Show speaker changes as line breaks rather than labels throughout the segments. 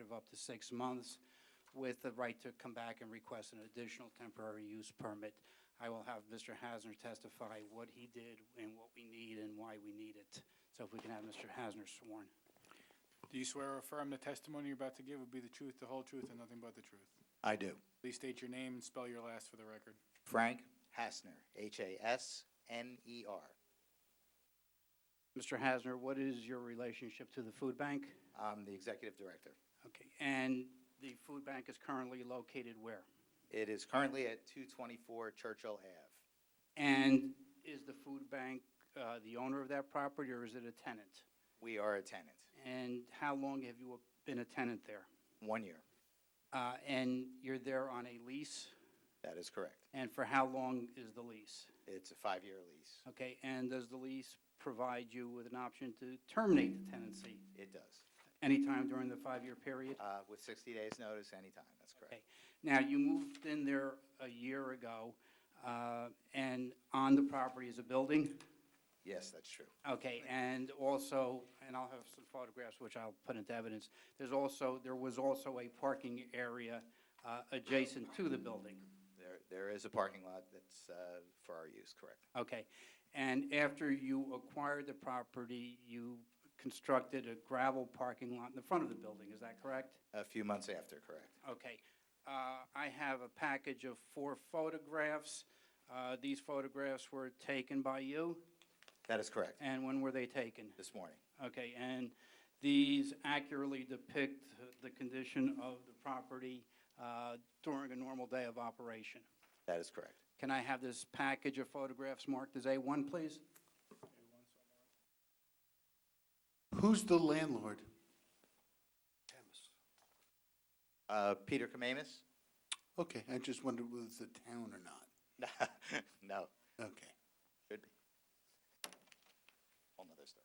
of up to six months with the right to come back and request an additional temporary use permit. I will have Mr. Hasner testify what he did and what we need and why we need it. So if we can have Mr. Hasner sworn.
Do you swear or affirm the testimony you're about to give will be the truth, the whole truth, and nothing but the truth?
I do.
Please state your name and spell your last for the record.
Frank?
Hasner, H-A-S-N-E-R.
Mr. Hasner, what is your relationship to the food bank?
I'm the executive director.
Okay, and the food bank is currently located where?
It is currently at 224 Churchill Ave.
And is the food bank uh, the owner of that property, or is it a tenant?
We are a tenant,
And how long have you been a tenant there?
one year.
Uh, And you're there on a lease,
That is correct.
and for how long is the lease?
It's a five-year lease.
Okay, and does the lease provide you with an option to terminate the tenancy
It does.
anytime during the five-year period?
Uh, With 60 days' notice, anytime, that's correct.
Okay. Now, you moved in there a year ago, uh, and on the property is a building?
Yes, that's true.
Okay, and also, and I'll have some photographs which I'll put into evidence, there's also, there was also a parking area uh, adjacent to the building.
There, There is a parking lot that's uh, for our use, correct.
Okay, and after you acquired the property, you constructed a gravel parking lot in the front of the building, is that correct?
A few months after, correct.
Okay. Uh, I have a package of four photographs. Uh, These photographs were taken by you,
That is correct,
and when were they taken?
this morning.
Okay, and these accurately depict the condition of the property uh, during a normal day of operation.
That is correct.
Can I have this package of photographs marked as A1, please?
Who's the landlord?
Uh, Peter Kamamis?
Okay, I just wondered whether it's the town or not.
No,
Okay.
should be. Whole nother story.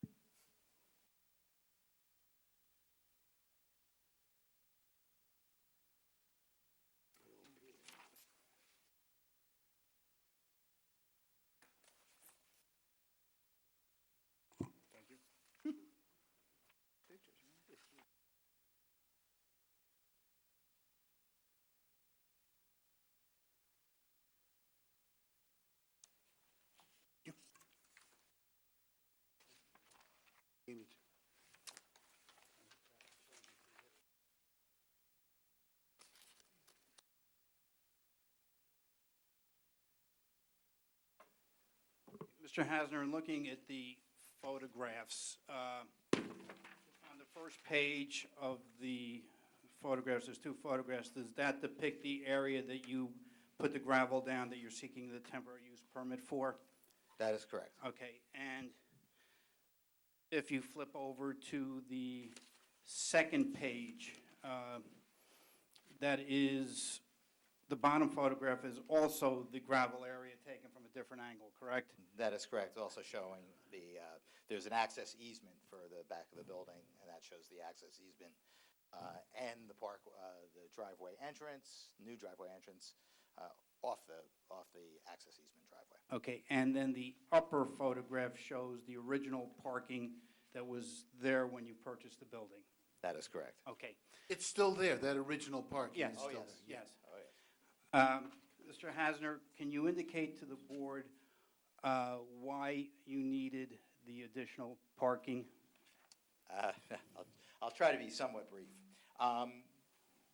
Mr. Hasner, in looking at the photographs, uh, on the first page of the photographs, there's two photographs, does that depict the area that you put the gravel down that you're seeking the temporary use permit for?
That is correct.
Okay, and if you flip over to the second page, uh, that is, the bottom photograph is also the gravel area taken from a different angle, correct?
That is correct, also showing the, uh, there's an access easement for the back of the building, and that shows the access easement uh, and the park, uh, the driveway entrance, new driveway entrance uh, off the, off the access easement driveway.
Okay, and then the upper photograph shows the original parking that was there when you purchased the building.
That is correct.
Okay,
It's still there, that original parking
yes.
is still there.
Yes.
Oh, yes.
Um, Mr. Hasner, can you indicate to the board uh, why you needed the additional parking?
Uh, I'll- I'll try to be somewhat brief. Um,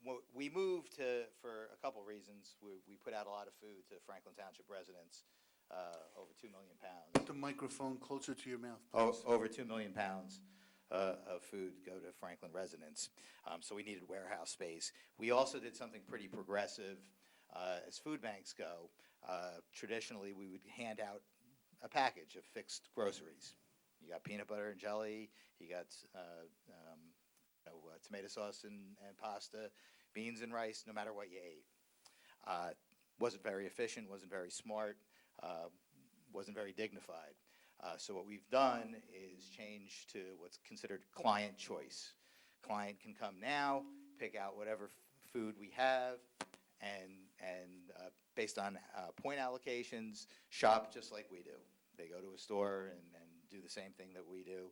wh- We moved to, for a couple reasons. We we put out a lot of food to Franklin Township residents, uh, over 2 million pounds.
Put the microphone closer to your mouth,
O-
please.
Oh, Over 2 million pounds uh, of food go to Franklin residents. Um, So we needed warehouse space. We also did something pretty progressive uh, as food banks go. Uh, Traditionally, we would hand out a package of fixed groceries. You got peanut butter and jelly, you got uh, um, you know, uh, tomato sauce and and pasta, beans and rice, no matter what you ate. Uh, Wasn't very efficient, wasn't very smart, uh, wasn't very dignified. Uh, So what we've done is change to what's considered client choice. Client can come now, pick out whatever f- food we have, and, and uh, based on uh, point allocations, shop just like we do. They go to a store and, and do the same thing that we do,